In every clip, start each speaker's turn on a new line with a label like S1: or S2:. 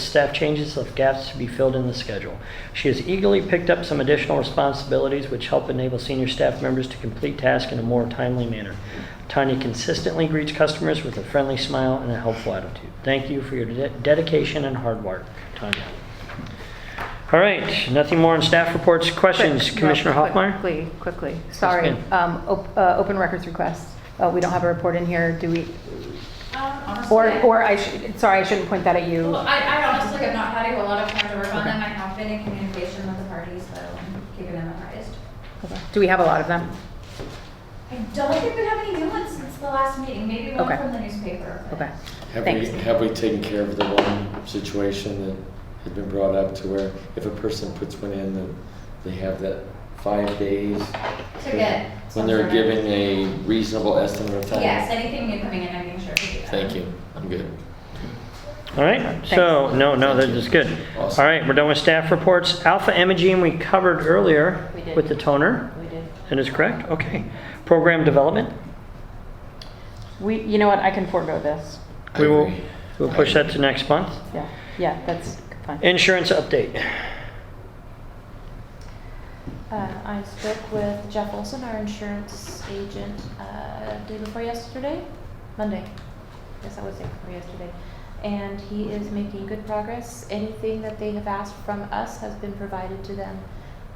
S1: staff changes left gaps to be filled in the schedule. She has eagerly picked up some additional responsibilities which help enable senior staff members to complete tasks in a more timely manner. Tanya consistently greets customers with a friendly smile and a helpful attitude. Thank you for your de- dedication and hard work, Tanya. All right, nothing more on staff reports, questions,
S2: Quick, no,
S1: Commissioner
S2: quick-
S1: Hoffmeyer?
S2: Quickly, quickly, sorry.
S1: ma'am.
S2: Um, op- uh, Open records request, Uh, we don't have a report in here, do we?
S3: Um, honestly,
S2: Or,
S3: I-
S2: or I, should- sorry, I shouldn't point that at
S3: Well,
S2: you.
S3: I, I honestly have not had a lot of time to work on them. I have been in communication with the parties, so I'm keeping them apprised.
S2: Do we have a lot of them?
S3: I don't think we have any new ones since the last meeting, maybe one
S2: Okay.
S3: from the newspaper. but-
S2: Okay,
S4: Have we,
S2: thanks.
S4: have we taken care of the one situation that had been brought up to where if a person puts one in, then they have that five days?
S3: To get some
S4: When they're
S3: sort of-
S4: giving a reasonable estimate of time?
S3: Yes, anything new coming in, I'm making sure to do that.
S4: Thank you, I'm good.
S1: All right, so, no, no, that is good. All
S4: Awesome.
S1: right, we're done with staff reports. Alpha imaging, we covered earlier
S5: We did.
S1: with the toner.
S5: We did.
S1: That is correct, okay. Program development,
S5: We, you know what, I can forego this.
S4: I
S1: we will,
S4: agree.
S1: we'll push that to next month.
S5: Yeah, yeah, that's fine.
S1: Insurance update.
S6: Uh, I spoke with Jeff Olson, our insurance agent, uh, day before yesterday, Monday. Yes, that was day before yesterday. And he is making good progress. Anything that they have asked from us has been provided to them.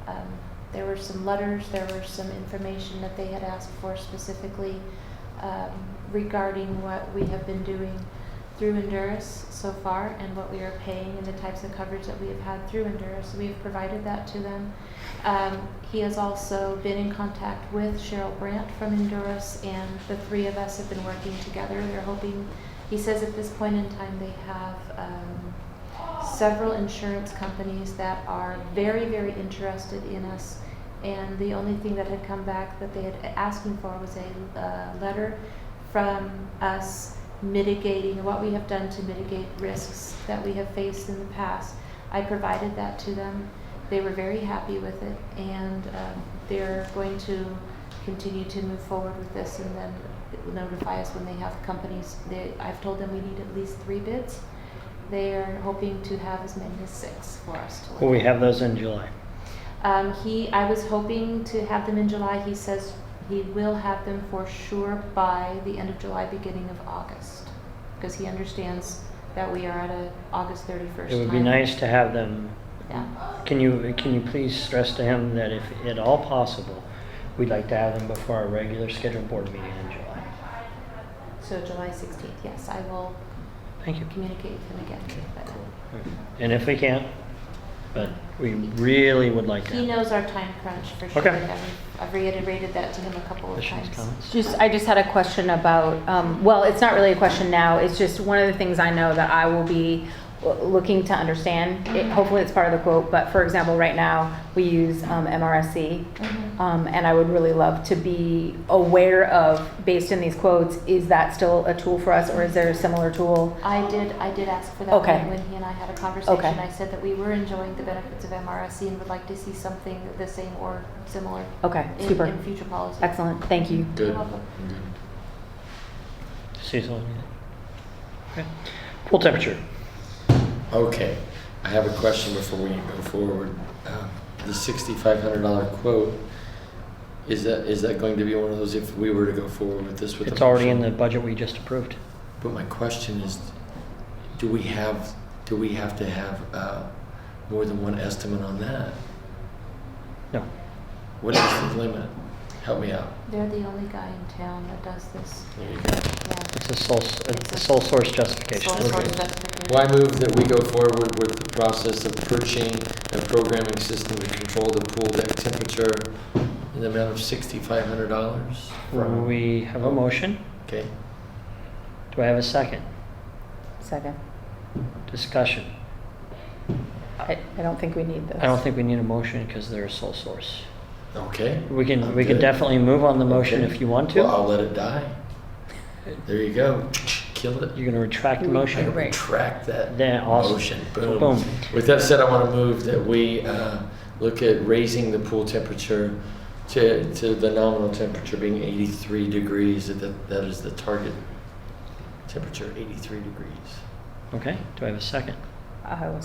S6: Um, there were some letters, there were some information that they had asked for specifically, um, regarding what we have been doing through Honduras so far and what we are paying and the types of coverage that we have had through Honduras. We have provided that to them. Um, he has also been in contact with Cheryl Brandt from Honduras, and the three of us have been working together. They're hoping, he says at this point in time, they have um, several insurance companies that are very, very interested in us. And the only thing that had come back that they had asked me for was a uh, letter from us mitigating, what we have done to mitigate risks that we have faced in the past. I provided that to them. They were very happy with it, and um, they're going to continue to move forward with this and then notify us when they have companies. They, I've told them we need at least three bids. They are hoping to have as many as six for us to look
S1: Will we
S6: at.
S1: have those in July?
S6: Um, he, I was hoping to have them in July. He says he will have them for sure by the end of July, beginning of August, because he understands that we are at a August thirty-first.
S1: It would be nice to have them.
S6: Yeah,
S1: Can you, can you please stress to him that if at all possible, we'd like to have them before our regular scheduled board meeting in July?
S6: so July sixteenth. Yes, I will
S1: Thank you.
S6: communicate with him again. But
S1: And if we can't, but we really would like to.
S6: he knows our time crunch for sure.
S1: Okay.
S6: I've, I've reiterated that to him a couple of
S1: Questions,
S6: times.
S1: comments?
S2: Just, I just had a question about, um, well, it's not really a question now, it's just one of the things I know that I will be w- looking to understand. It- Hopefully, it's part of the quote, but for example, right now, we use um, MRSC,
S6: Mhm.
S2: Um, and I would really love to be aware of, based in these quotes, is that still a tool for us or is there a similar tool?
S6: I did, I did ask for that
S2: Okay.
S6: when when he and I had a conversation.
S2: Okay.
S6: I said that we were enjoying the benefits of MRSC and would like to see something the same or similar
S2: Okay,
S6: in,
S2: Oh, super.
S6: in future policy.
S2: Excellent, thank you.
S4: Good.
S6: You're welcome.
S1: Cecil? anything? Okay. Pool temperature.
S4: Okay, I have a question before we go forward. Um, The sixty-five hundred dollar quote, is that, is that going to be one of those if we were to go forward with this with?
S1: It's
S4: a
S1: already in
S4: motion?
S1: the budget we just approved.
S4: But my question is, do we have, do we have to have uh, more than one estimate on that?
S1: No.
S4: What is the limit? Help me out.
S6: They're the only guy in town that does this.
S4: There you go.
S1: It's a sole, it's a sole source justification.
S6: Sole source
S4: Okay.
S6: justification.
S4: Well, I move that we go forward with the process of purchasing a programming system to control the pool deck temperature in the amount of sixty-five hundred dollars?
S1: We have a motion.
S4: Okay,
S1: Do I have a second?
S2: Second.
S1: Discussion.
S2: I, I don't think we need this.
S1: I don't think we need a motion because they're a sole source.
S4: okay.
S1: We can,
S4: I'm
S1: we can
S4: good.
S1: definitely move on the motion
S4: Okay.
S1: if you want
S4: Well,
S1: to.
S4: I'll let it die. There you go. Kill it.
S1: You're gonna retract the
S4: I
S1: motion.
S4: retract that
S1: Then, awesome.
S4: motion. Boom.
S1: Boom.
S4: With that said, I want to move that we uh, look at raising the pool temperature to, to the nominal temperature being 83 degrees. That, that is the target temperature, 83 degrees.
S1: Okay, do I have a second?
S2: Iowa